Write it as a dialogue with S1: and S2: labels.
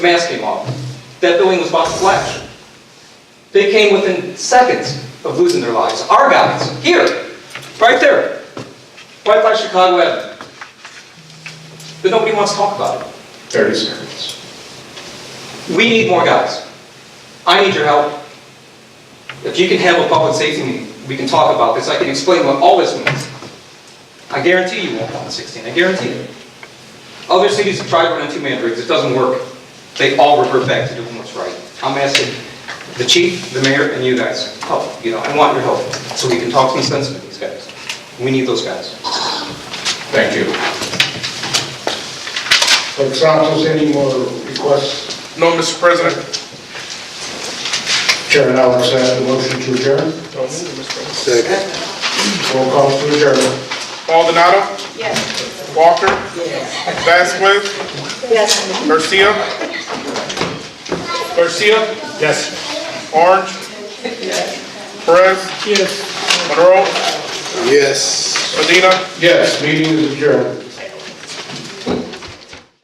S1: mask came off. That building was about to flash. They came within seconds of losing their lives. Our guys, here, right there, right by Chicago Avenue. But nobody wants to talk about it.
S2: 30 seconds.
S1: We need more guys. I need your help. If you can have a public safety meeting, we can talk about this. I can explain what all this means. I guarantee you won't want 16, I guarantee it. Other cities have tried running two-man rigs, it doesn't work. They all revert back to doing what's right. I'm asking the chief, the mayor, and you guys, help, you know, I want your help, so we can talk some sense into these guys. We need those guys.
S2: Thank you.
S3: Clerk Santos, any more requests?
S4: No, Mr. President.
S3: Chairman Alex, I have a motion to adjourn.
S4: Don't move, Mr. President.
S3: Roll call to adjourn.
S4: Baldonado,
S5: Yes.
S4: Walker, Vasquez,
S5: Yes.
S4: Garcia. Garcia. Yes. Orange. Perez. Yes. Monroe,
S6: Yes.
S4: Medina.
S3: Yes, meeting is adjourned.